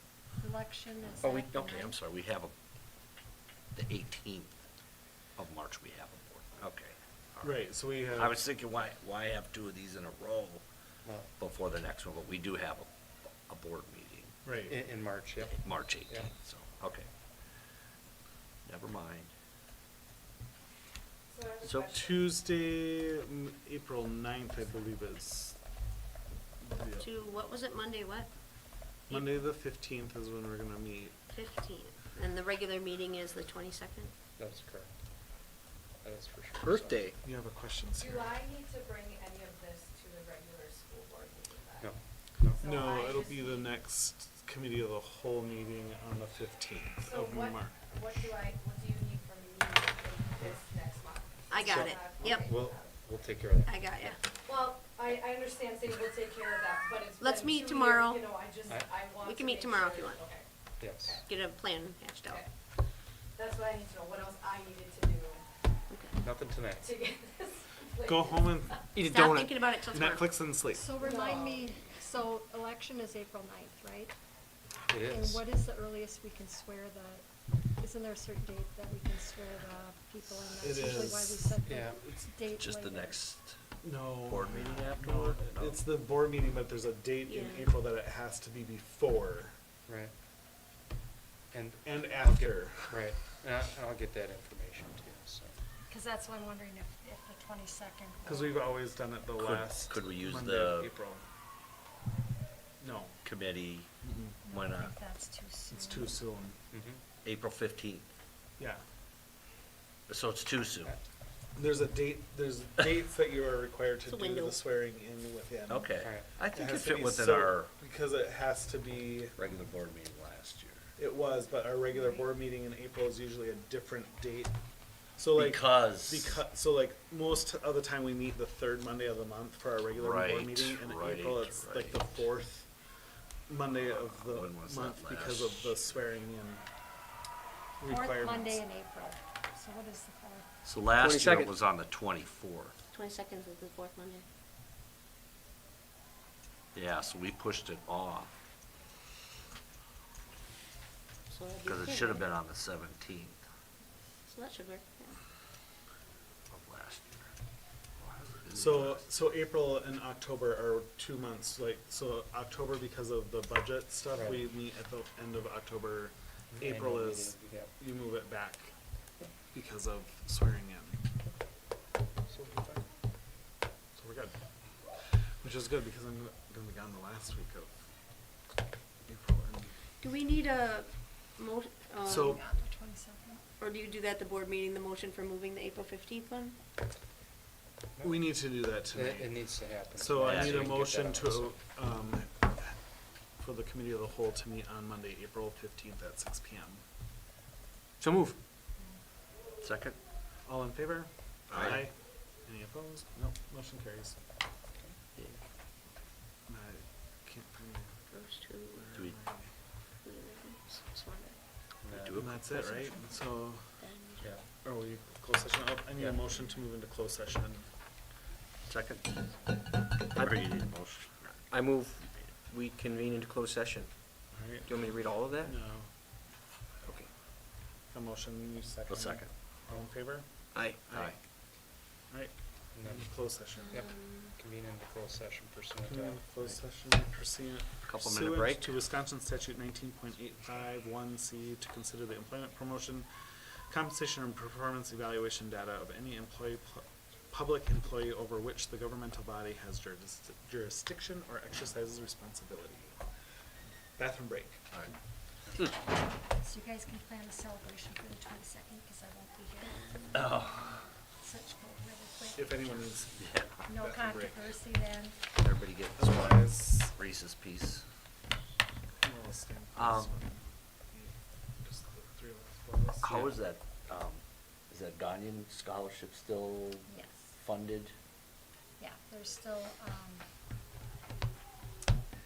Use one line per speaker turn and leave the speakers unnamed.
election is
Oh, we,
that the
okay, I'm
ninth?
sorry, we have a, the eighteenth of March, we have a board, okay. all
Right, so we have.
I was thinking, why, why have two of these in a row
Well,
before the next one, but we do have a, a board meeting,
Right,
in, in March, yep.
March
Yeah.
eighteenth, so, okay. Never mind.
so Tuesday, m- April ninth, I believe is. yeah.
To, what was it, Monday, what?
Monday, the fifteenth is when we're gonna meet.
Fifteenth, and the regular meeting is the twenty-second?
That's correct. That is for sure. so.
Earth Day,
You have a question,
Do
Sarah?
I need to bring any of this to the regular school board meeting then?
No,
So
No,
I
it'll
just-
be the next committee of the whole meeting on the fifteenth
So
of
what,
March.
what do I, what do you need from me in this next month?
I got
So-
it. Yep.
Okay.
we'll, we'll take care of that.
I got ya.
Well, I, I understand saying we'll take care of that, but it's
Let's
been
meet
two years,
tomorrow.
You know, I just,
I-
I want
We
to
can meet
make
tomorrow if
sure-
you want.
Okay,
Yes.
Get a plan hatched out.
okay. That's what I need to know, what else I needed to do
Okay.
Nothing tonight.
to get this.
Go
place.
home and eat a donut.
Stop thinking about it till tomorrow.
Netflix and sleep.
So remind
No.
me, so election is April ninth, right?
It is.
And what is the earliest we can swear the, isn't there a certain date that we can swear the people in? That's
It
usually why
is.
Yeah.
we set the date later.
just the next,
No.
Board meeting
no,
afterward? No.
It's the board meeting, but there's a date in
Yeah.
April that it has to be before
Right. And,
and after.
right, and I- and I'll get that information too, so.
Cause that's why I'm wondering if, if the twenty-second.
Cause we've always done it the
Could-
last.
could we use
Monday of
the-
April. No,
committee, why
I
not,
think that's too soon.
it's too soon.
mhm.
April fifteenth,
Yeah.
so it's too soon,
There's a date, there's dates that you are required
It's a
to do
window.
the swearing in within.
okay.
Alright.
I
It
think it
has to
fit
be
within
so-
our
Because it has to be,
regular board meeting last year.
it was, but our regular board meeting in April is usually a different date. So like.
Because.
Because, so like, most of the time we meet the third Monday of the month for our regular
Right,
board meeting, and in
right,
April, it's like the
right.
fourth Monday of the
When was that
month because of the
last?
swearing in
Fourth Monday
requirements.
in April, so what is the fourth?
So last year
22nd.
it was on the twenty-fourth.
Twenty-second is the fourth Monday.
Yeah, so we pushed it off,
So that'd be
because it
okay,
should have
right?
been on the seventeenth
So that should work, yeah.
of last year. Why is it-
So, so April and October are two months, like, so October because of the budget stuff,
Right.
we meet at the end of October.
Annual
April is,
meeting, yep.
you move it back because of swearing in.
So we'll be fine.
So we're good. Which is good because I'm gonna be gone the last week of April. and-
Do we need a mo, um,
So-
Not the twenty-second.
or do you do that at the board meeting, the motion for moving the April fifteenth one?
We need to do that
It, it
tonight.
needs to happen.
So
Yeah,
I need
so
a
we can
motion to, um, for the committee of the whole to meet on Monday, April fifteenth at six P M. So move.
Second?
All in favor?
Aye.
Any opposed? No, motion carries.
Yeah.
And I can't find it.
Those two. uh,
Where
Do we-
am I?
who did I miss? This one,
We do
And that's it, right? So,
then-
Yeah,
are we closed session? Oh, I need
Yeah.
a motion to move into closed session.
Second? I already did a motion.
I move, we convene into closed session.
All right.
Do you want me to read all of that?
No.
Okay.
A motion, you second.
A second.
All in favor?
Aye.
Aye.
All right,
and then
closed session.
Yep.
Um,
convene into closed session pursuant to.
Convene in Closed session pursuant.
Couple minute
pursuant
break.
To Wisconsin statute nineteen point eight five one C to consider the employment promotion, compensation and performance evaluation data of any employee, pu- public employee over which the governmental body has juris- jurisdiction or exercises responsibility. Bathroom break.
All right.
So you guys can plan a celebration for the twenty-second, cause I won't be here. Such go really quick.
Oh. If anyone is,
Oh, Yeah,
No
bathroom break.
controversy then.
everybody get this one,
otherwise,
Reese's piece.
we'll stand for
Um,
this one. Just the three of us, four of us.
How is that, um, is that Ghanaian scholarship still
Yes,
funded?
yeah, there's still, um,